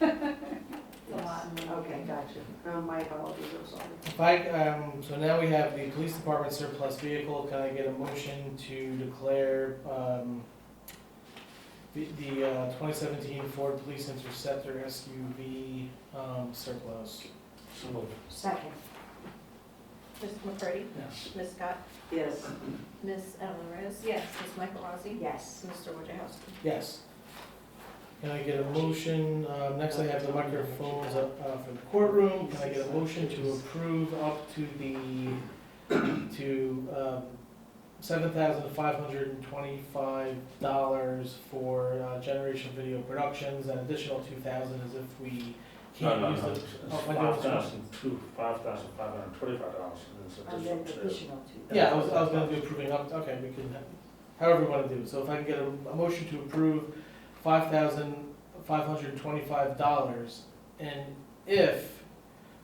It's a lot. Okay, gotcha. Oh, my apologies, I'm sorry. If I, um, so now we have the police department surplus vehicle, can I get a motion to declare, um, the, the, uh, twenty seventeen Ford Police Interceptor SUV, um, surplus? So moved. Second. Ms. McCurdy? Yes. Ms. Scott? Yes. Ms. Ellen Reyes? Yes. Ms. Michael Rossi? Yes. Mr. Wojciechowski? Yes. Can I get a motion, um, next I have the microphones up, uh, for the courtroom, can I get a motion to approve up to the, to, um, seven thousand five hundred and twenty-five dollars for, uh, Generation Video Productions, an additional two thousand as if we No, can't no, use no, the. it's oh, I do have five thousand two, five thousand five hundred and twenty-five dollars, and And then then it's additional additional two. Yeah, I was, I was gonna be approving up, okay, we can, however you wanna do it, so if I can get a, a motion to approve five thousand five hundred and twenty-five dollars, and if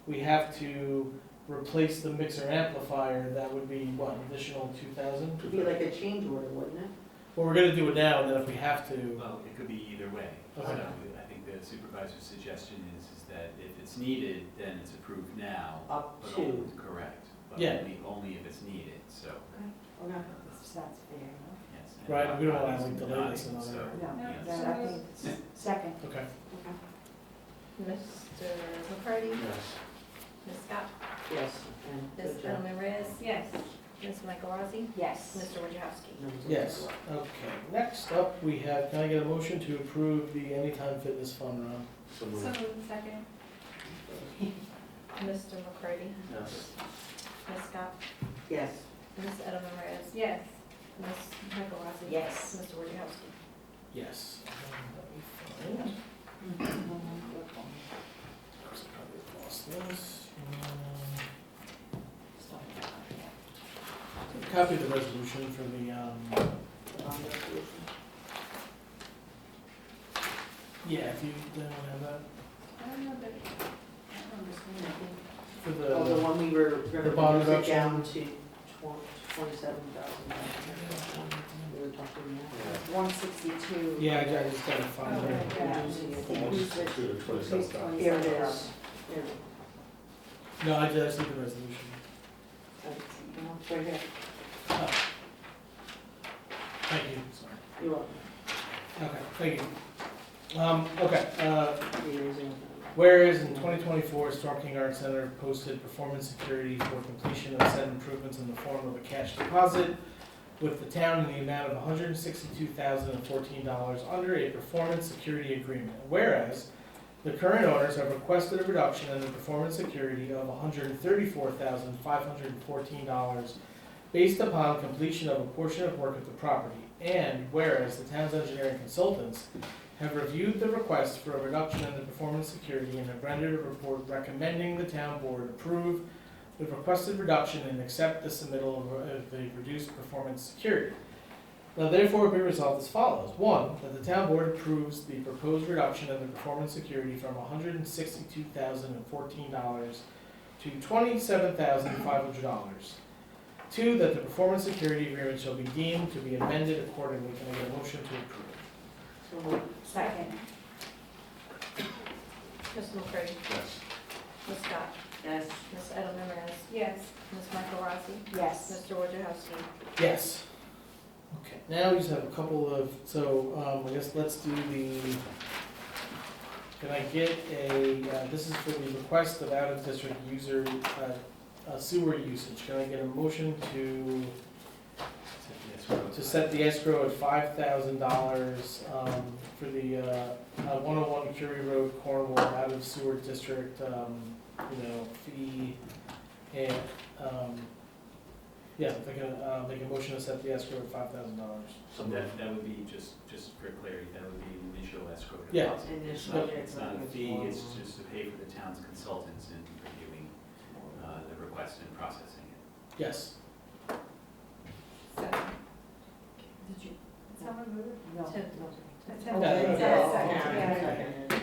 we have to replace the mixer amplifier, that would be, what, an additional two thousand? It'd be like a change order, wouldn't it? Well, we're gonna do it now, and then if we have to, Well, it could be either way. So Okay. I think the supervisor's suggestion is, is that if it's needed, then it's approved now. Up but to. only- Correct. but Yeah. only- Only if it's needed, so, Or not, that's fair yes. and right, we don't wanna obviously like delay this not, another. so, enough. No, yes. that I think, s- second. Okay, Okay. Mr. McCarty? Yes. Ms. Scott? Yes. and Ms. good job. Ellen Reyes? Yes. Ms. Michael Rossi? Yes. Mr. Wojciechowski? No, it's- yes, okay, next up, we have, can I get a motion to approve the Anytime Fitness Fun Run? So Mm. moved. second. Mr. McCarty? Yes. Ms. Scott? Yes. Ms. Ellen Reyes? Yes. Ms. Michael Rossi? Yes. Mr. Wojciechowski? Yes. Um, let me find- Probably lost this. Um, Copy of the resolution for the, um, yeah, if you don't have that, I don't know that, I don't for Oh, the the. one we were, The bond remember, we took reduction. down to twenty-seven thousand. We were talking One sixty-two. Yeah, I ju- I just gotta find it. Almost to the twenty-seven thousand. Here it is. Here. No, I just need the resolution. It's Right here. Thank you, sorry. You're welcome. Okay, thank you. Um, okay, uh, You're using- Whereas in 2024, Storm King Art Center posted performance security for completion of said improvements in the form of a cash deposit with the town in the amount of $162,014 under a performance security agreement. Whereas the current owners have requested a reduction in the performance security of $134,514 based upon completion of a portion of work at the property. And whereas the town's engineering consultants have reviewed the request for a reduction in the performance security and have rendered a report recommending the town board approve the requested reduction and accept the submittal of- of the reduced performance security. Now therefore be resolved as follows. One, that the town board approves the proposed reduction in the performance security from hundred and sixty-two thousand and fourteen dollars to twenty-seven thousand five hundred dollars. Two, that the performance security agreement shall be deemed to be amended accordingly. Can I get a motion to approve? So moved. Second. Mr. McCurdy? Yes. Ms. Scott? Yes. Ms. Ellen Reyes? Yes. Ms. Michael Rossi? Yes. Mr. Wojciechowski? Yes. Okay, now we just have a couple of, so, um, I guess let's do the, can I get a, uh, this is for the request of out-of-district user, uh, uh, sewer usage. Can I get a motion to, Yes, we're- to set the escrow at five thousand dollars, um, for the, uh, one oh one Curie Road Cornwall out of sewer district, um, you know, fee and, um, yeah, they can, uh, make a motion to set the escrow at five thousand dollars. So moved. That, that would be, just, just for clarity, that would be an initial escrow deposit. Yeah. It's Initial, not, yeah, it's not a it's fee, not- it's just to pay for the town's consultants in reviewing, uh, the request and processing it. Yes. Second. Did you? Someone move? No. Ten. Oh, Ten. Yeah, okay. yeah, Okay.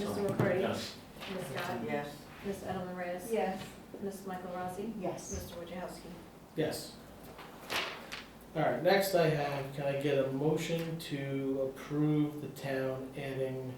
Mr. McCurdy? Yes. Ms. Scott? Yes. Ms. Edelman Reyes? Yes. Ms. Michael Rossi? Yes. Mr. Wojciechowski? Yes. All right, next I have, can I get a motion to approve the town adding